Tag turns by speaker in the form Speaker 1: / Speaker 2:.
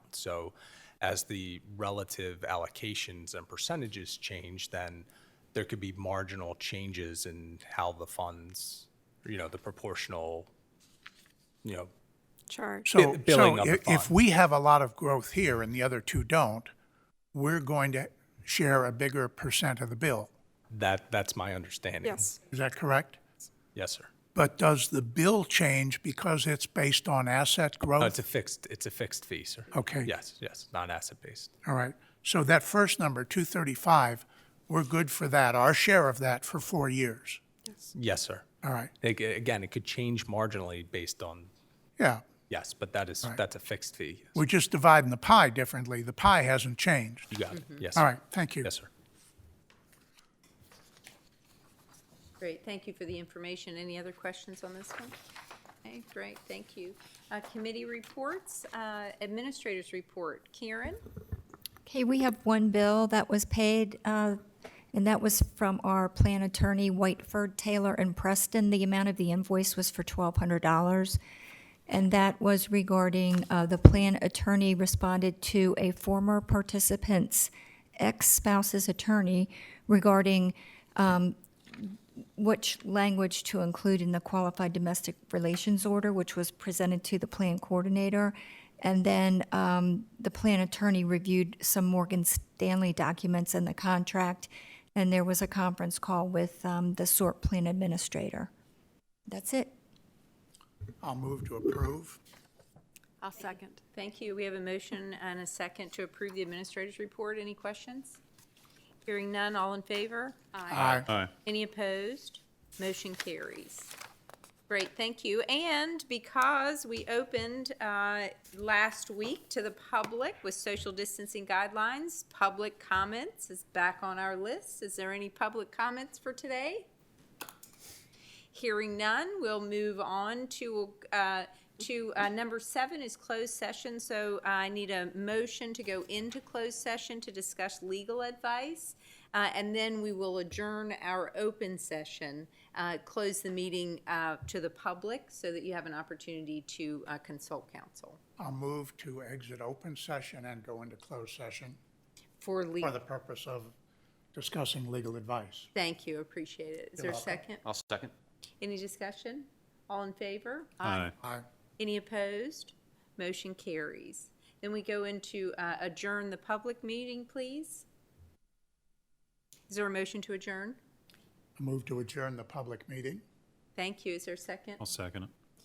Speaker 1: amount. So as the relative allocations and percentages change, then there could be marginal changes in how the funds, you know, the proportional, you know,
Speaker 2: charge.
Speaker 1: Bi-
Speaker 3: So,
Speaker 1: billing
Speaker 3: so
Speaker 1: of the
Speaker 3: i- if
Speaker 1: fund.
Speaker 3: we have a lot of growth here and the other two don't, we're going to share a bigger percent of the bill.
Speaker 1: that, that's my understanding.
Speaker 2: Yes,
Speaker 3: Is that correct?
Speaker 1: Yes, sir.
Speaker 3: But does the bill change because it's based on asset
Speaker 1: No,
Speaker 3: growth?
Speaker 1: it's a fixed, it's a fixed fee, sir.
Speaker 3: Okay.
Speaker 1: Yes, yes, non-asset-based.
Speaker 3: All right. So that first number, 235, we're good for that, our share of that for four years.
Speaker 1: Yes, sir.
Speaker 3: All right.
Speaker 1: Ag- Again, it could change marginally based on,
Speaker 3: Yeah.
Speaker 1: yes, but that is, that's a fixed fee.
Speaker 3: We're just dividing the pie differently. The pie hasn't changed.
Speaker 1: You got it. Yes.
Speaker 3: Mm-hmm. All
Speaker 1: sir.
Speaker 3: right. Thank you.
Speaker 1: Yes, sir.
Speaker 4: Great, thank you for the information. Any other questions on this one? Okay, great, thank you. Uh, Committee reports, uh, administrators report. Karen?
Speaker 5: Okay, we have one bill that was paid, uh, and that was from our plan attorney, Whiteford, Taylor, and Preston. The amount of the invoice was for $1,200, and that was regarding uh, the plan attorney responded to a former participant's ex-spouse's attorney regarding which language to include in the qualified domestic relations order, which was presented to the plan coordinator. And then um, the plan attorney reviewed some Morgan Stanley documents in the contract, and there was a conference call with um, the SORT plan administrator. That's it.
Speaker 3: I'll move to approve.
Speaker 2: I'll second.
Speaker 4: Thank you. We have a motion and a second to approve the administrators report. Any questions? Hearing none, all in favor?
Speaker 3: Aye.
Speaker 4: Any opposed? Motion carries. Great, thank you. And because we opened uh, last week to the public with social distancing guidelines, public comments is back on our list. Is there any public comments for today? Hearing none, we'll move on to, uh, to uh, number seven is closed session. So I need a motion to go into closed session to discuss legal advice. Uh, And then we will adjourn our open session, uh, close the meeting uh, to the public so that you have an opportunity to uh, consult counsel
Speaker 3: I'll move to exit open session and go into closed session
Speaker 4: for
Speaker 3: for
Speaker 4: legal.
Speaker 3: the purpose of discussing legal advice.
Speaker 4: Thank you, appreciate it. Is there a
Speaker 3: welcome.
Speaker 4: second?
Speaker 6: I'll second.
Speaker 4: Any discussion? All in favor?
Speaker 3: Aye.
Speaker 4: Any opposed? Motion carries. Then we go into uh, adjourn the public meeting, please. Is there a motion to adjourn?
Speaker 3: I move to adjourn the public meeting.
Speaker 4: Thank you. Is there a second?
Speaker 6: I'll second it.